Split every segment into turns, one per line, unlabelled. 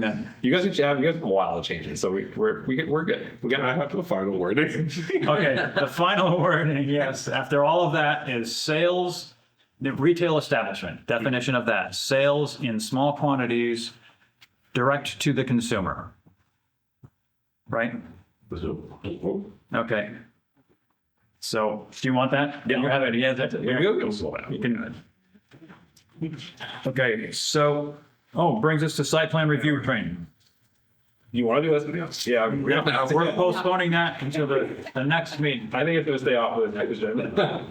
No, you guys have you guys have a while to change it, so we we're we, we're good. We
I
got
have the final wording.
Okay, the final word, yes, after all of that is sales, the retail establishment, definition of that, sales in small quantities, direct to the consumer. Right? Okay. So, do you want that? Yeah. You have it, yeah, that's it.
we go go slow
You
down.
can do it. Okay, so, oh, brings us to site plan review training.
You want to do this video? Yeah, we
We're
don't have to-
we're postponing that until the, the next meeting.
I think it's gonna stay off of the next agenda.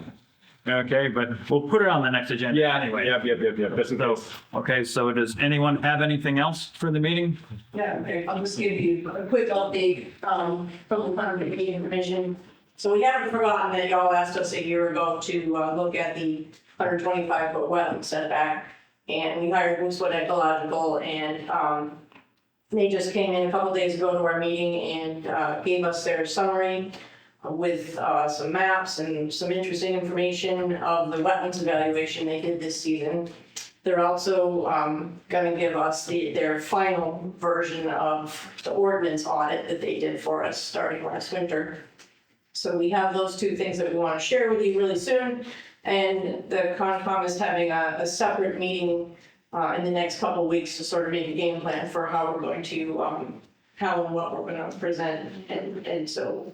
Okay, but we'll put it on the next agenda.
yeah,
anyway.
anyway, yep, yep, yep, yep. Just in
So,
case.
okay, so does anyone have anything else for the meeting?
Yeah, okay, I'll just give you a quick update um, from the planning and Zoning commission. So we haven't forgotten that y'all asked us a year ago to uh, look at the 125-foot wetland setback. And we hired Moosewood Ecological and um, they just came in a couple days ago to our meeting and uh, gave us their summary with uh, some maps and some interesting information of the wetlands evaluation they did this season. They're also um, gonna give us the, their final version of the ordinance audit that they did for us starting last winter. So we have those two things that we want to share with you really soon. And the Concom is having a, a separate meeting uh, in the next couple of weeks to sort of make a game plan for how we're going to, um, how and what we're gonna present. And, and so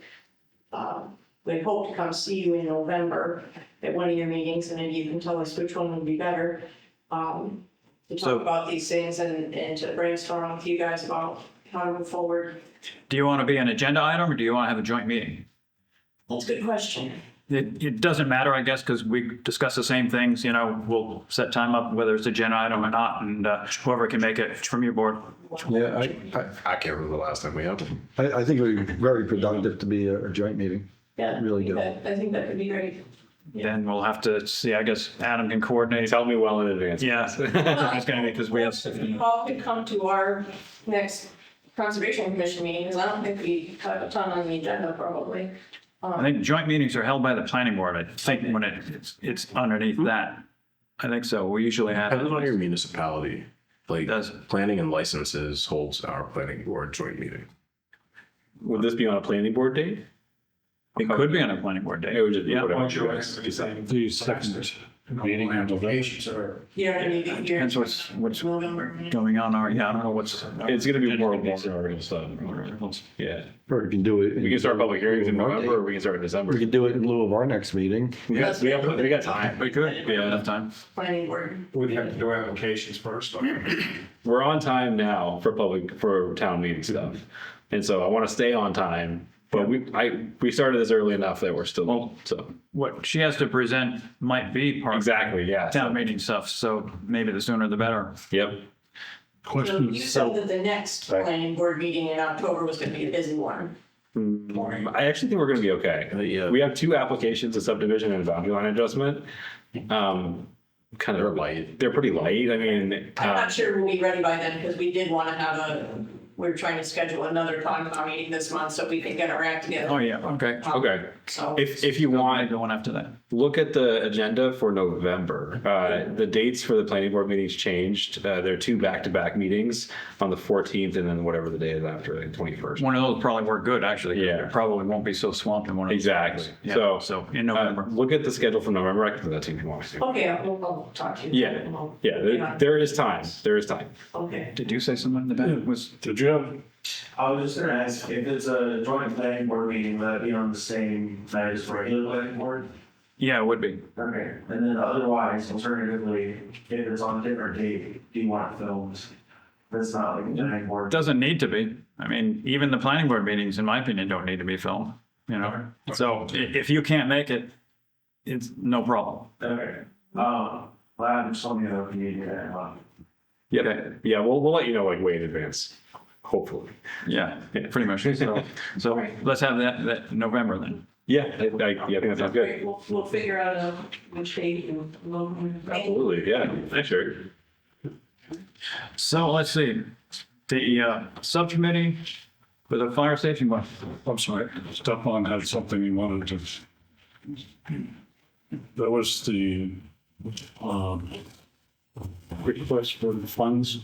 um, we hope to come see you in November at one of your meetings and then you can tell us which one would be better um, to
So-
talk about these things and, and to brainstorm with you guys about how to move forward.
Do you want to be an agenda item or do you want to have a joint meeting?
That's a good question.
It, it doesn't matter, I guess, because we discuss the same things, you know, we'll set time up whether it's agenda item or not, and uh, whoever can make it from your board.
Yeah, I, I,
I can't remember the last time we had them.
I I think it would be very productive to be a a joint meeting.
Yeah.
Really good.
I I think that could be great.
Then we'll have to see, I guess Adam can coordinate.
Tell me well in advance.
Yeah. It's gonna be because we have.
You all could come to our next conservation commission meeting, because I don't think we have a ton on the agenda probably.
I think joint meetings are held by the planning board, I think, when it, it's, it's
Hmm.
underneath that. I think so, we usually have.
Depends on your municipality. Like,
Does.
planning and licenses holds our planning board joint meeting.
Would this be on a planning board date?
It could be on a planning board
It
day.
would just be
Yeah.
whatever. you guys decide.
The second meeting in November.
You know what I mean? You're-
Depends what's, what's
November.
going on, or, yeah, I don't know what's.
It's gonna be more warmer stuff. Yeah,
Or we can do it. in-
we can start public hearings in November, or we can start in
We
December.
can do it in lieu of our next meeting.
We got, we have, we got time.
We could,
Yeah.
enough time.
Planning board.
We'd have to do applications first.
We're on time now for public, for town meeting stuff. And so I want to stay on time, but we, I, we started this early enough that we're still, so.
What she has to present might be part of
Exactly, yeah.
town meeting stuff, so maybe the sooner the better. Oh,
Yep.
So you said that the next planning board meeting in October was gonna be a busy one.
I actually think we're gonna be okay.
Uh, Yeah.
We have two applications, a subdivision and a boundary line adjustment. Um, kind
They're
of,
light.
they're pretty light, I mean.
I'm
uh,
not sure we'll be ready by then, because we did wanna have a, we we're trying to schedule another Concom meeting this month, so we can get our act
Oh,
together.
yeah, okay.
um, Okay,
So.
if, if you
Why
want,
the one after that?
look at the agenda for November. Uh, the dates for the planning board meetings changed. Uh, there are two back-to-back meetings on the fourteenth and then whatever the day is after, the twenty-first.
One of those probably work good, actually. 'cause
Yeah.
it Probably won't be so swamped in one of those.
Exactly.
Yeah,
So-
So in
Uh,
November.
look at the schedule for November. I can put that to you if you want me to.
Okay, I'll, I'll talk to you.
Yeah, yeah, there, there is time. There is time.
Okay.
Did you say something in the back was?
Did you have
I was just gonna ask if it's a joint planning board meeting, would that be on the same night as regular planning board?
Yeah, it would be.
Okay. And then otherwise, alternatively, if it's on a different date, do you want it filmed? That's not like a planning
It
board.
Doesn't need to be. I mean, even the planning board meetings, in my opinion, don't need to be filmed, you know? So i- if you can't make it, it's no problem.
Okay. Um, glad it's on the other meeting that month.
Yeah, yeah, we'll, we'll let you know like way in advance, hopefully.
Yeah, pretty much. So, so let's have that, that November then.
Yeah, I, I, yeah, I think that sounds good.
Great, we'll, we'll figure out uh, which date and we'll.
Absolutely, yeah, thanks, Eric.
So let's see, the uh, subcommittee for the fire safety one.
I'm sorry, Stefan had something he wanted to. That was the um, request for the funds